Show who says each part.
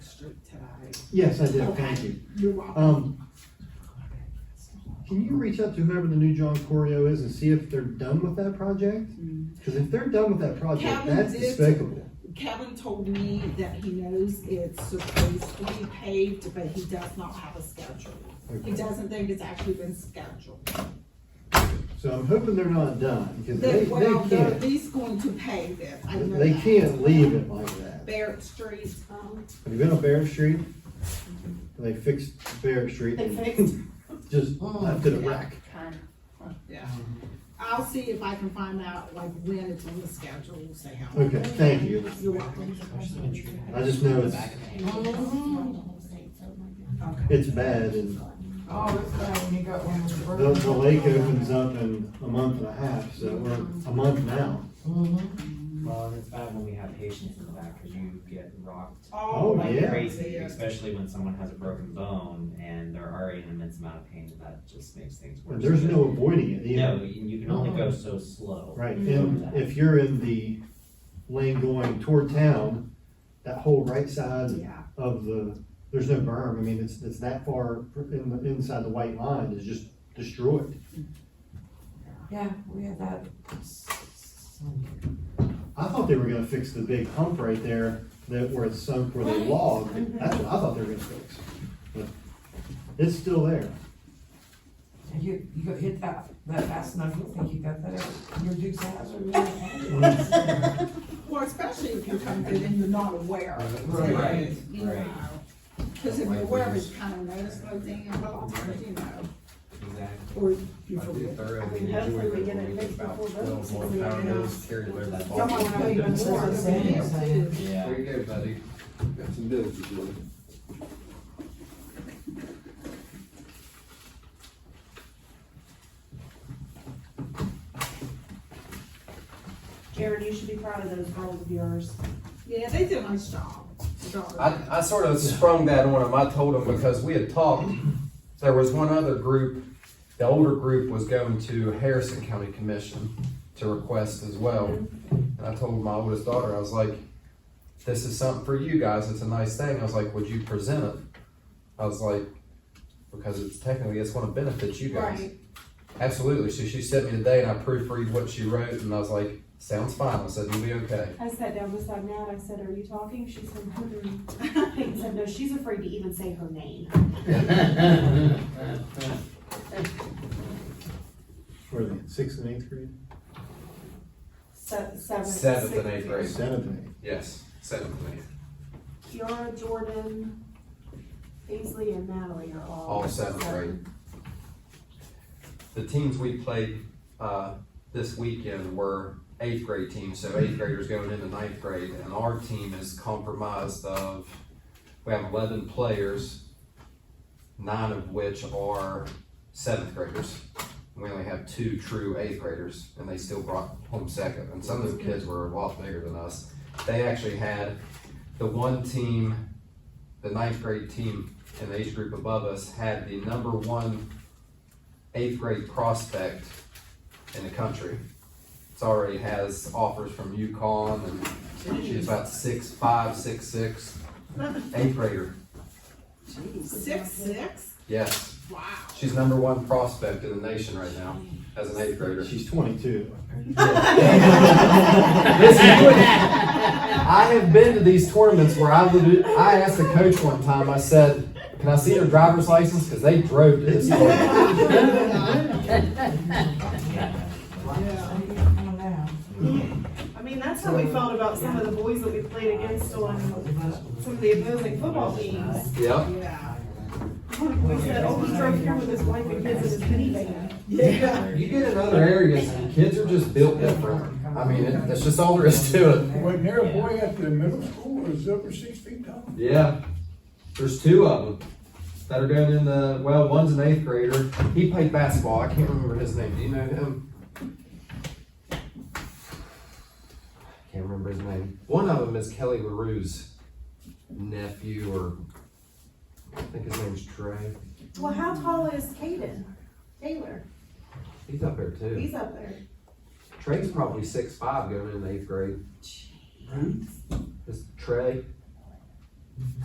Speaker 1: Yes, I did, thank you.
Speaker 2: You're welcome.
Speaker 1: Um, can you reach out to whoever the new John Corio is and see if they're done with that project? Cause if they're done with that project,
Speaker 2: Mm. Kevin
Speaker 1: that's
Speaker 2: did-
Speaker 1: despicable.
Speaker 2: Kevin told me that he knows it's supposed to be paved, but he does not have a schedule. He
Speaker 1: Okay.
Speaker 2: doesn't think it's actually been scheduled.
Speaker 1: So I'm hoping they're not done, cause they,
Speaker 2: They,
Speaker 1: they
Speaker 2: well, they're at
Speaker 1: can't,
Speaker 2: least going to pave it. I know
Speaker 1: they
Speaker 2: that.
Speaker 1: can't leave it like that.
Speaker 2: Barrett Street, um,
Speaker 1: Have you been on Barrett Street? They fixed Barrett Street.
Speaker 3: They
Speaker 1: and
Speaker 3: fixed-
Speaker 1: Just
Speaker 2: Oh,
Speaker 1: left it a wreck.
Speaker 2: yeah. I'll see if I can find out like when it's on the schedule, we'll see how.
Speaker 1: Okay, thank you.
Speaker 2: You're welcome.
Speaker 1: I just know it's,
Speaker 2: Okay.
Speaker 1: it's bad and
Speaker 4: Oh, this guy, when he got one with the.
Speaker 1: the, the lake opens up in a month and a half, so we're a month now.
Speaker 5: Well, and it's bad when we have patients in the back, cause you get rocked
Speaker 1: Oh,
Speaker 2: my
Speaker 1: yeah.
Speaker 5: like
Speaker 2: goodness,
Speaker 5: crazy, especially when someone has a broken bone and they're already in an immense amount of pain, and that just makes things worse.
Speaker 1: And there's no avoiding it
Speaker 5: No,
Speaker 1: either.
Speaker 5: and you can only go so slow. Mm-hmm.
Speaker 1: Right, and if you're in the lane going toward town, that whole right side
Speaker 2: Yeah,
Speaker 1: of the, there's no berm, I mean, it's, it's that far in the, inside the white line is just destroyed.
Speaker 4: Yeah, we had that. Sunday.
Speaker 1: I thought they were gonna fix the big hump right there that where it's sunk where they logged. That's what I thought they were gonna fix. But It's still there.
Speaker 4: And You, you got hit that, that fast enough, you think you got that, your Duke's hazard.
Speaker 2: well, especially if you're coming in and you're not aware.
Speaker 4: Right.
Speaker 5: Right,
Speaker 2: You know,
Speaker 5: right.
Speaker 2: Cause if you're aware, it's kind of noticeable, damn, well, "Oh, you know,
Speaker 5: Exactly.
Speaker 2: or you
Speaker 6: I did
Speaker 2: forget.
Speaker 6: thoroughly
Speaker 3: mean,
Speaker 6: enjoy
Speaker 3: hopefully
Speaker 6: the
Speaker 3: we get it
Speaker 6: meeting
Speaker 3: fixed
Speaker 6: about
Speaker 3: before votes,
Speaker 6: twelve more
Speaker 3: we
Speaker 6: pound
Speaker 3: know.
Speaker 6: bills carried over that
Speaker 2: Someone
Speaker 6: ball.
Speaker 2: tell you
Speaker 4: That's what
Speaker 2: more.
Speaker 4: I'm saying.
Speaker 5: Yeah,
Speaker 6: There you go, buddy. Got some bills to do.
Speaker 3: Jared, you should be proud of those girls of yours.
Speaker 2: Yeah, they did a nice job. Job.
Speaker 6: I, I sort of sprung that on him. I told him because we had talked, there was one other group, the older group was going to Harrison County Commission to request as well. And I told my oldest daughter, I was like, this is something for you guys. It's a nice thing. I was like, would you present it? I was like, because it's technically, it's going to benefit you guys.
Speaker 2: Right.
Speaker 6: Absolutely. So she sent me today and I proofread what she wrote and I was like, sounds fine. I said, you'll be okay.
Speaker 3: I sat down beside Nat, I said, are you talking? She said, "Hmm." Peyton said, no, she's afraid to even say her name.
Speaker 1: Where are they, sixth and eighth grade?
Speaker 3: Se- Seventh.
Speaker 6: Seventh and
Speaker 3: sixth.
Speaker 6: eighth grade.
Speaker 1: Seventh and eighth.
Speaker 6: Yes. Seven, please.
Speaker 3: Kiara, Jordan, Paisley, and Natalie are all.
Speaker 6: All seventh grade. The teams we played, uh, this weekend were eighth grade teams, so eighth graders going into ninth grade, and our team is compromised of, we have eleven players, nine of which are seventh graders. We only have two true eighth graders, and they still brought home second, and some of the kids were a lot bigger than us. They actually had the one team, the ninth grade team in the age group above us had the number one eighth grade prospect in the country. It's already has offers from UConn and she's about six five, six six, eighth grader.
Speaker 2: Six, six?
Speaker 6: Yes,
Speaker 2: Wow.
Speaker 6: she's number one prospect in the nation right now as an eighth grader.
Speaker 1: She's twenty-two.
Speaker 6: Listen, you wouldn't- I have been to these tournaments where I would, I asked the coach one time, I said, can I see their driver's license? Cause they drove to this tournament.
Speaker 4: Come on now.
Speaker 7: I mean, that's how we felt about some of the boys that we played against on some of the opposing football teams.
Speaker 6: Yep.
Speaker 2: Yeah.
Speaker 7: We said, oh, he's right here with his wife and kids in his minivan.
Speaker 2: Yeah.
Speaker 6: You get in other areas, and kids are just built different. I mean, it- that's just all there is to it.
Speaker 8: Wasn't there a boy at the middle school that was over six feet tall?
Speaker 6: Yeah. There's two of them that are going in the, well, one's an eighth grader. He played basketball. I can't remember his name. Do you know him? Can't remember his name. One of them is Kelly LaRue's nephew or, I think his name's Trey.
Speaker 3: Well, how tall is Caden? Taylor,
Speaker 6: He's up there too.
Speaker 3: he's up there.
Speaker 6: Trey's probably six five going in eighth grade. Is Trey?